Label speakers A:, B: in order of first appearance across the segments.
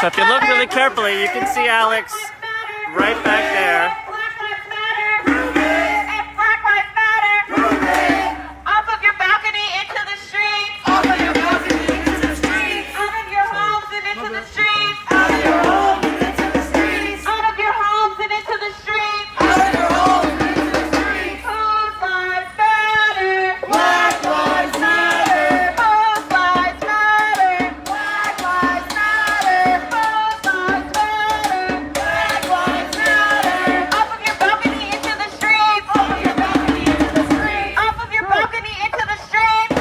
A: So if you look really carefully, you can see Alex right back there.
B: Black Lives Matter. And Black Lives Matter. Off of your balcony into the streets. Off of your balcony into the streets. Out of your homes and into the streets. Out of your homes and into the streets. Out of your homes and into the streets. Out of your homes and into the streets. Whose lives matter? Black lives matter. Whose lives matter? Black lives matter. Whose lives matter? Black lives matter. Off of your balcony into the streets. Off of your balcony into the streets. Off of your balcony into the streets.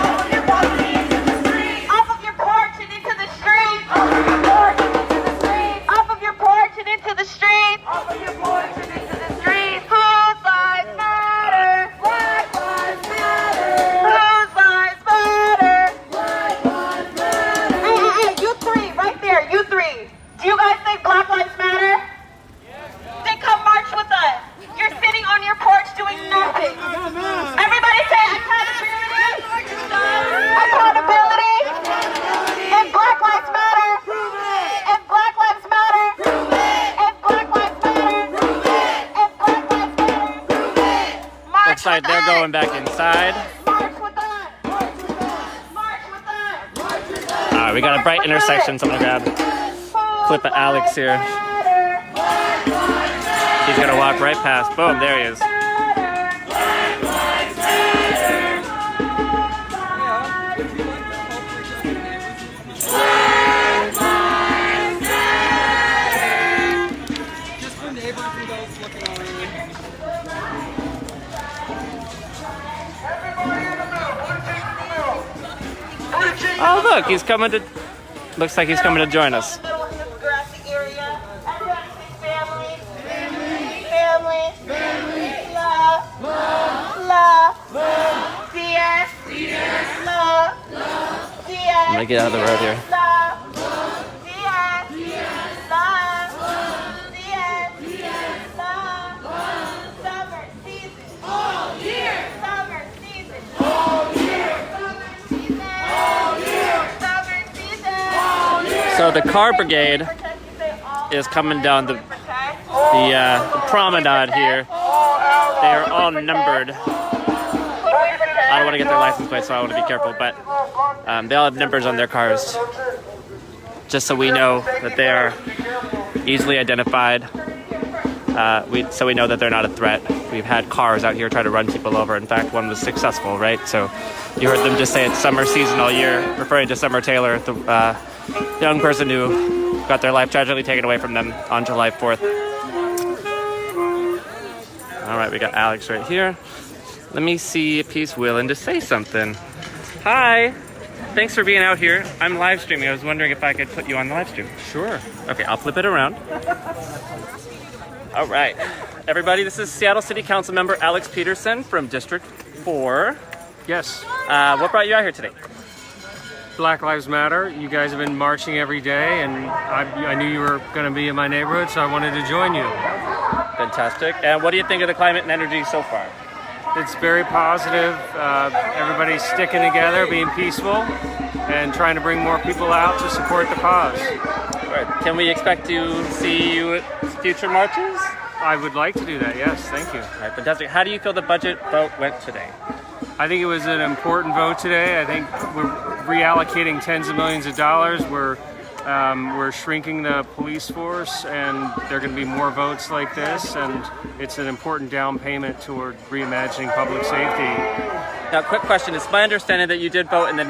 B: Off of your balcony into the streets. Off of your porch and into the streets. Off of your porch and into the streets. Off of your porch and into the streets. Off of your porch and into the streets. Whose lives matter? Black lives matter. Whose lives matter? Hey, hey, hey, you three, right there, you three. Do you guys think Black Lives Matter? Then come march with us. You're sitting on your porch doing nothing. Everybody say accountability. Accountability. And Black Lives Matter. And Black Lives Matter. And Black Lives Matter. And Black Lives Matter. March
A: Looks like
B: with
A: they're
B: us.
A: going back inside.
B: March with us. March with us. March with us.
A: All right, we got a bright intersection. So I'm gonna grab. Clip of Alex here. He's gonna walk right past. Boom, there he is.
C: Just for neighbors and those looking on.
D: Everybody in the middle, one team in the middle. Three teams.
A: Oh look, he's coming to. Looks like he's coming to join us.
B: Middle of this grassy area. Everybody say family. Family. Love. Love. DS. Love. DS.
A: I'm gonna get out of the road here.
B: Love. DS. Love. DS. Love. Summer season. All year. Summer season. All year. Summer season. All year. Summer season. All year.
A: So the car brigade
B: is coming down the, the
A: the, uh, the promenade here. They are all numbered. I don't want to get their license plate, so I want to be careful. But um, they all have numbers on their cars, just so we know that they are easily identified. Uh, we, so we know that they're not a threat. We've had cars out here try to run people over. In fact, one was successful, right? So you heard them just say it's summer season all year, referring to Summer Taylor, the uh, young person who got their life tragically taken away from them on July 4th. All right, we got Alex right here. Let me see if he's willing to say something. Hi. Thanks for being out here. I'm live streaming. I was wondering if I could put you on the live stream.
E: Sure.
A: Okay, I'll flip it around. All right. Everybody, this is Seattle City Council member Alex Peterson from District 4.
E: Yes.
A: Uh, what brought you out here today?
E: Black Lives Matter. You guys have been marching every day, and I, I knew you were going to be in my neighborhood, so I wanted to join you.
A: Fantastic. And what do you think of the climate and energy so far?
E: It's very positive. Uh, everybody's sticking together, being peaceful, and trying to bring more people out to support the cause.
A: All right. Can we expect to see you at future marches?
E: I would like to do that. Yes, thank you.
A: All right, fantastic. How do you feel the budget vote went today?
E: I think it was an important vote today. I think we're reallocating tens of millions of dollars. We're um, we're shrinking the police force, and there are going to be more votes like this. And it's an important down payment toward reimagining public safety.
A: Now, quick question. It's my understanding that you did vote in the